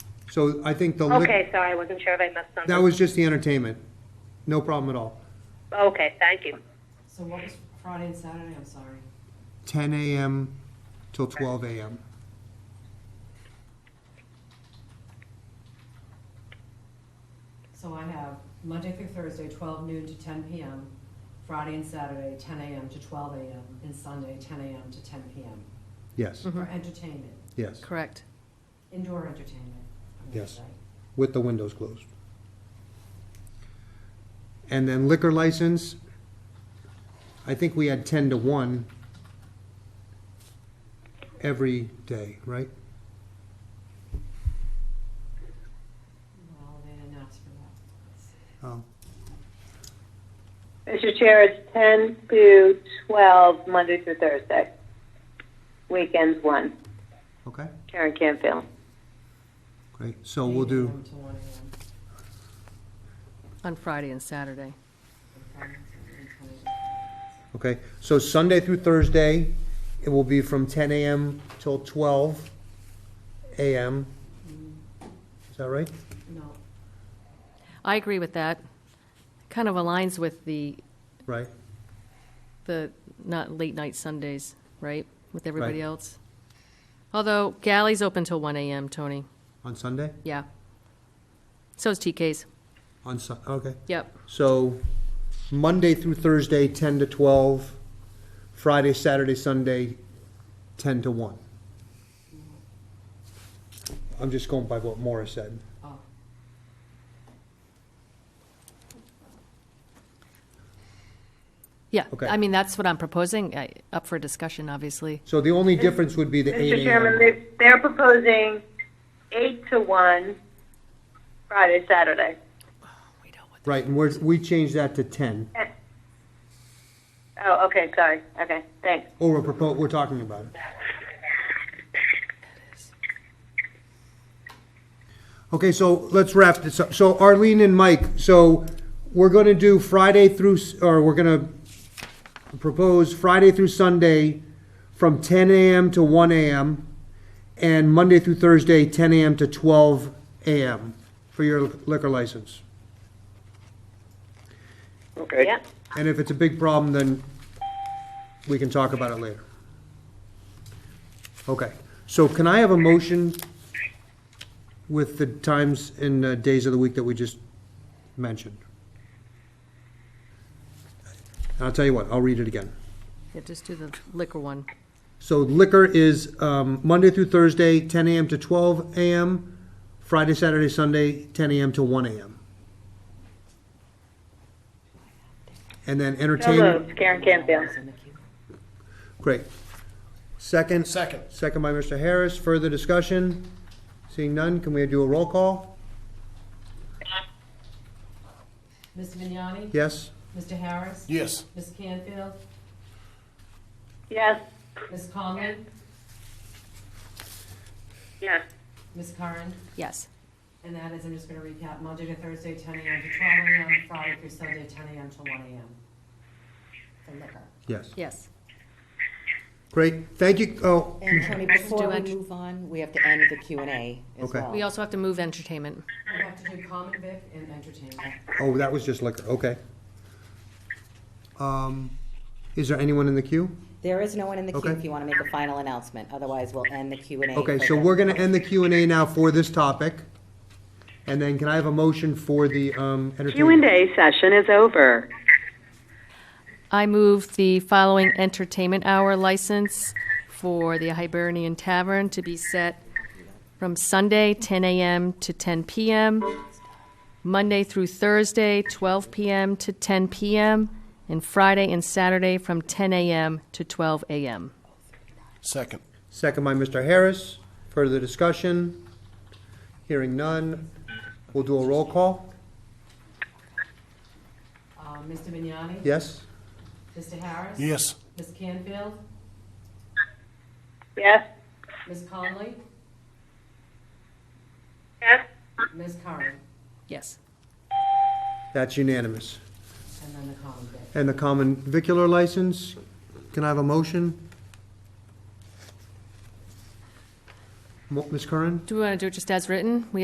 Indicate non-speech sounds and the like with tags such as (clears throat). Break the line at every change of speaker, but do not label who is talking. So I think the liquor,
Okay, sorry, I wasn't sure if I missed something.
that was just the entertainment. No problem at all.
Okay, thank you.
So what was Friday and Saturday? I'm sorry.
Ten AM till twelve AM.
So I have Monday through Thursday, twelve noon to ten PM, Friday and Saturday, ten AM to twelve AM, and Sunday, ten AM to ten PM.
Yes,
For entertainment,
yes,
Correct.
indoor entertainment. I would
Yes.
say.
with the windows closed. And then liquor license, I think we had ten to one every day, right?
Well, they didn't ask for that.
Oh,
Mr. Chair, it's 10 to 12, Monday through Thursday. Weekends 1,
okay,
Karen Campfield.
great. So we'll do.
8 a.m. to 1 a.m.
On Friday and Saturday.
and Friday and Saturday, 10 a.m.
Okay, so Sunday through Thursday, it will be from ten AM till twelve AM. Is that right?
No,
I agree with that. Kind of aligns with the,
Right,
the not late night Sundays, right? With everybody
Right.
else. Although Galley's open till one AM, Tony.
on Sunday?
Yeah. So is TK's.
On Su- okay.
Yep.
So Monday through Thursday, ten to twelve, Friday, Saturday, Sunday, ten to one. I'm just going by what Morris said.
oh,
Yeah.
Okay.
I mean, that's what I'm proposing, I- up for discussion, obviously.
So the only difference would be the eight AM.
Mr. Chairman, they- they're proposing 8 to 1, Friday, Saturday.
We know what
Right, and we're, we changed that to ten,
Oh, okay, sorry. Okay, thanks.
or we're propo, we're talking about it. Okay, so let's wrap this up. So Arlene and Mike, so we're gonna do Friday through, s- or we're gonna propose Friday through Sunday from ten AM to one AM, and Monday through Thursday, ten AM to twelve AM for your liquor license.
Okay.
And if it's a big problem, then we can talk about it later. Okay, so can I have a motion with the times and uh, days of the week that we just mentioned? And I'll tell you what, I'll read it again.
Yeah, just do the liquor one.
So liquor is um, Monday through Thursday, 10 AM to 12 AM, Friday, Saturday, Sunday, 10 AM to 1 AM. And then
So
entertainment.
moved, Karen Campfield.
it's in the queue.
Great. Second?
Second.
Second by Mr. Harris. Further discussion? Seeing none, can we do a roll call?
Mr. Vignani?
Yes?
Mr. Harris?
Yes.
Ms. Canfield?
Yes,
Ms. Conlon?
yes.
Ms. Curran?
Yes.
And that is, I'm just gonna recap, Monday to Thursday, ten AM to twelve AM, Friday through Sunday, ten AM to one AM. For liquor.
Yes.
Yes.
Great. Thank you. Oh, (clears throat)
And Tony, before we
ent-
move on, we have to end the Q and A as
Okay.
well.
We also have to move entertainment.
We have to do common vic and entertainment.
oh, that was just liquor. Okay. Um, Is there anyone in the queue?
There is no one in the queue
Okay.
if you want to make a final announcement, otherwise we'll end the Q and A.
Okay,
for
so
the-
we're gonna end the Q and A now for this topic. And then can I have a motion for the um, entertainment?
A session is over.
I move the following entertainment hour license for the Hibernian Tavern to be set from Sunday, 10 a.m. to 10 p.m., Monday through Thursday, 12 p.m. to 10 p.m., and Friday and Saturday from 10 a.m. to 12 a.m.
Second.
Second by Mr. Harris. Further discussion? Hearing none. We'll do a roll call.
Uh, Mr. Vignani?
Yes?
Mr. Harris?
Yes.
Ms. Canfield?
Yes,
Ms. Conley?
yes.
Ms. Curran?
Yes.
That's unanimous.
And then the common vic.
And the common vicular license, can I have a motion? Mo- Ms. Curran?
Do we want to do it just as written? We